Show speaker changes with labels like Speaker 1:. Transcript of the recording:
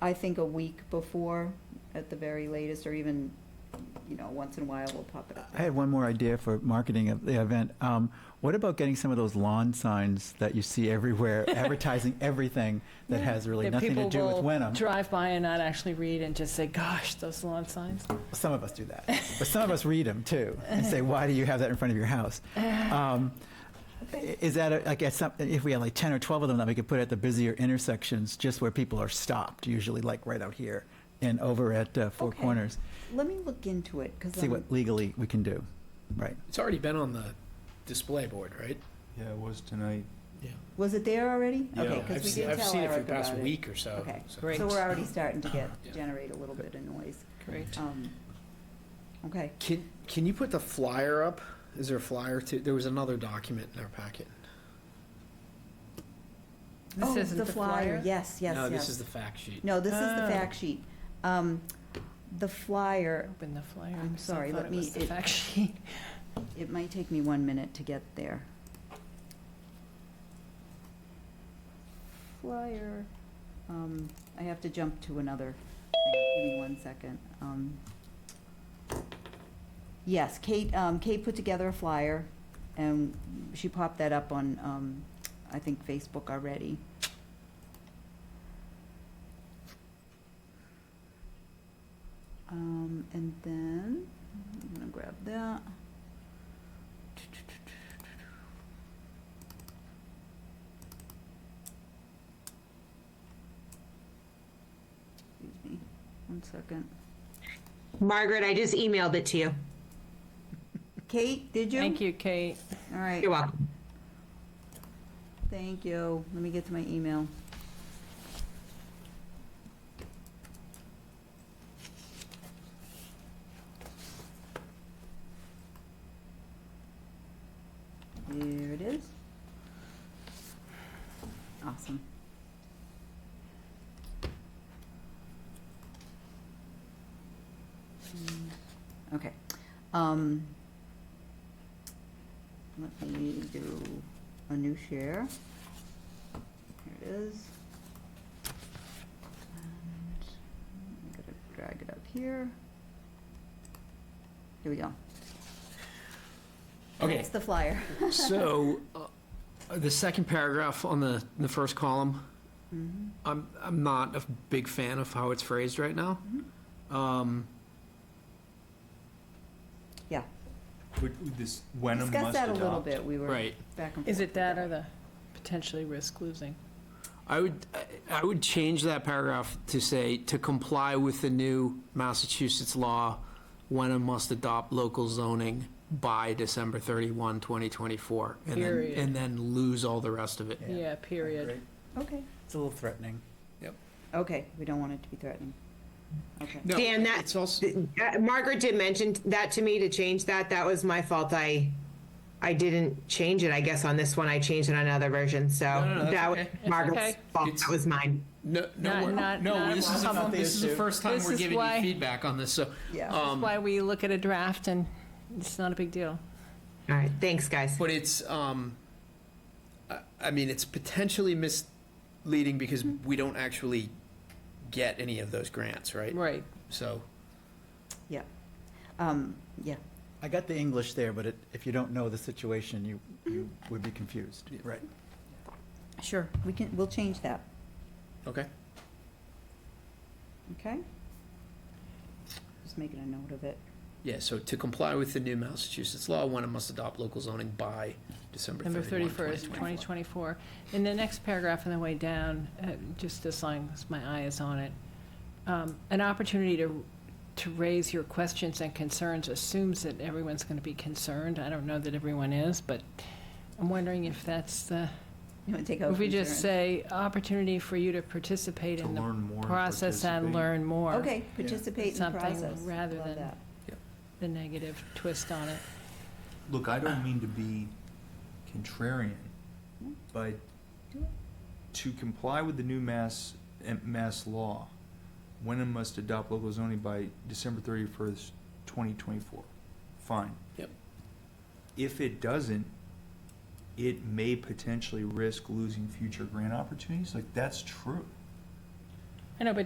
Speaker 1: I think a week before, at the very latest, or even, you know, once in a while, we'll pop it up.
Speaker 2: I had one more idea for marketing of the event. Um, what about getting some of those lawn signs that you see everywhere, advertising everything that has really
Speaker 3: That
Speaker 2: nothing to
Speaker 3: people
Speaker 2: do with
Speaker 3: will
Speaker 2: Wenham?
Speaker 3: Drive by and not actually read and just say, gosh, those lawn signs.
Speaker 2: Some of us do that, but some of us read them too and say, "Why do you have that in front of your house?" Um, i- is that a, like at some, if we had like ten or twelve of them that we could put at the busier intersections, just where people are stopped, usually like right out here and over at uh, Four
Speaker 1: Okay.
Speaker 2: Corners.
Speaker 1: Let me look into it, because
Speaker 2: See
Speaker 1: I'm,
Speaker 2: what legally we can do. Right.
Speaker 4: It's already been on the display board, right?
Speaker 5: Yeah, it was tonight.
Speaker 4: Yeah.
Speaker 1: was it there already?
Speaker 5: Yeah.
Speaker 1: Okay,
Speaker 4: I've
Speaker 1: because we
Speaker 4: seen,
Speaker 1: did
Speaker 4: I've
Speaker 1: tell
Speaker 4: seen it for the
Speaker 1: Eric
Speaker 4: past
Speaker 1: about it.
Speaker 4: week or so.
Speaker 1: Okay.
Speaker 4: so-
Speaker 3: Great.
Speaker 1: So we're already starting to get,
Speaker 4: Yeah.
Speaker 1: generate a little bit of noise.
Speaker 3: Great.
Speaker 1: Um, Okay,
Speaker 4: Can, can you put the flyer up? Is there a flyer to, there was another document in our packet.
Speaker 1: Oh,
Speaker 3: This isn't the flyer?
Speaker 1: Yes, yes, yes.
Speaker 4: No, this is the fact sheet.
Speaker 1: No, this is the
Speaker 3: Ah.
Speaker 1: fact sheet. Um, The flyer,
Speaker 3: Open the flyer.
Speaker 1: I'm
Speaker 3: 'cause I
Speaker 1: sorry,
Speaker 3: thought
Speaker 1: let
Speaker 3: it
Speaker 1: me-
Speaker 3: was the
Speaker 1: it-
Speaker 3: fact sheet.
Speaker 1: it might take me one minute to get there. Flyer, um, I have to jump to another thing. Give me one second. Um, Yes, Kate, um, Kate put together a flyer, and she popped that up on, um, I think, Facebook already. Um, and then, I'm gonna grab that. Excuse me, one second.
Speaker 6: Margaret, I just emailed it to you.
Speaker 1: Kate, did you?
Speaker 3: Thank you, Kate.
Speaker 1: All right,
Speaker 6: You're welcome.
Speaker 1: thank you. Let me get to my email. There it is. Awesome. Mm, Okay. Um, let me do a new share. Here it is. And I'm gonna drag it up here. Here we go.
Speaker 4: Okay,
Speaker 1: It's the flyer.
Speaker 4: so uh, the second paragraph on the, the first column,
Speaker 1: Mm-hmm.
Speaker 4: I'm, I'm not a big fan of how it's phrased right now.
Speaker 1: Mm-hmm.
Speaker 4: Um,
Speaker 1: Yeah.
Speaker 5: Would, would this Wenham must
Speaker 1: Discuss that a little
Speaker 5: adopt.
Speaker 1: bit. We were
Speaker 4: Right.
Speaker 1: back and forth.
Speaker 3: Is it
Speaker 1: with
Speaker 3: that or the potentially risk losing?
Speaker 4: I would, I would change that paragraph to say, to comply with the new Massachusetts law, Wenham must adopt local zoning by December 31, 2024. and then-
Speaker 3: Period.
Speaker 4: And then lose all the rest of it.
Speaker 2: Yeah.
Speaker 3: Yeah, period.
Speaker 1: Okay.
Speaker 2: It's a little threatening.
Speaker 1: Okay, we don't want it to be threatening. Okay.
Speaker 4: No,
Speaker 6: Dan, that-
Speaker 4: it's also-
Speaker 6: Th- uh, Margaret did mention that to me to change that. That was my fault. I, I didn't change it, I guess, on this one. I changed it on another version, so.
Speaker 4: No, no, no, that's
Speaker 6: that was
Speaker 4: okay.
Speaker 3: It's
Speaker 6: Margaret's
Speaker 3: okay.
Speaker 6: fault.
Speaker 4: It's-
Speaker 6: That was mine.
Speaker 4: No, no,
Speaker 3: Not-
Speaker 4: we're-
Speaker 3: not-
Speaker 4: no,
Speaker 3: not
Speaker 4: this is, the-
Speaker 2: problem.
Speaker 4: this is the first time
Speaker 3: This
Speaker 4: we're
Speaker 3: is
Speaker 4: giving you
Speaker 3: why-
Speaker 4: feedback on this, so.
Speaker 1: Yeah.
Speaker 3: That's
Speaker 4: um,
Speaker 3: why we look at a draft and it's not a big deal.
Speaker 6: All right, thanks, guys.
Speaker 4: But it's, um, I, I mean, it's potentially misleading because we don't actually get any of those grants, right?
Speaker 3: Right.
Speaker 4: So,
Speaker 1: Yeah. Um, yeah.
Speaker 2: I got the English there, but it, if you don't know the situation, you, you would be confused. Right.
Speaker 1: Sure. We can, we'll change that.
Speaker 4: okay.
Speaker 1: Okay? Just making a note of it.
Speaker 4: Yeah, so to comply with the new Massachusetts law, one must adopt local zoning by December
Speaker 3: Number
Speaker 4: 31,
Speaker 3: 31st,
Speaker 4: 2024.
Speaker 3: 2024. In the next paragraph on the way down, uh, just as long as my eye is on it, um, an opportunity to, to raise your questions and concerns assumes that everyone's going to be concerned. I don't know that everyone is, but I'm wondering if that's the,
Speaker 1: You want to take over?
Speaker 3: if we just
Speaker 1: insurance?
Speaker 3: say, opportunity for you to participate
Speaker 5: To
Speaker 3: in the
Speaker 5: learn more and
Speaker 3: process and
Speaker 5: participate.
Speaker 3: learn more.
Speaker 1: Okay, participate in the
Speaker 3: Something
Speaker 1: process.
Speaker 3: rather
Speaker 1: Love
Speaker 3: than-
Speaker 1: that.
Speaker 3: The negative twist on it.
Speaker 5: Look, I don't mean to be contrarian, but to comply with the new mass, eh, mass law, Wenham must adopt local zoning by December thirty-first, twenty twenty-four. Fine.
Speaker 4: Yep.
Speaker 5: If it doesn't, it may potentially risk losing future grant opportunities, like, that's true.
Speaker 3: I know, but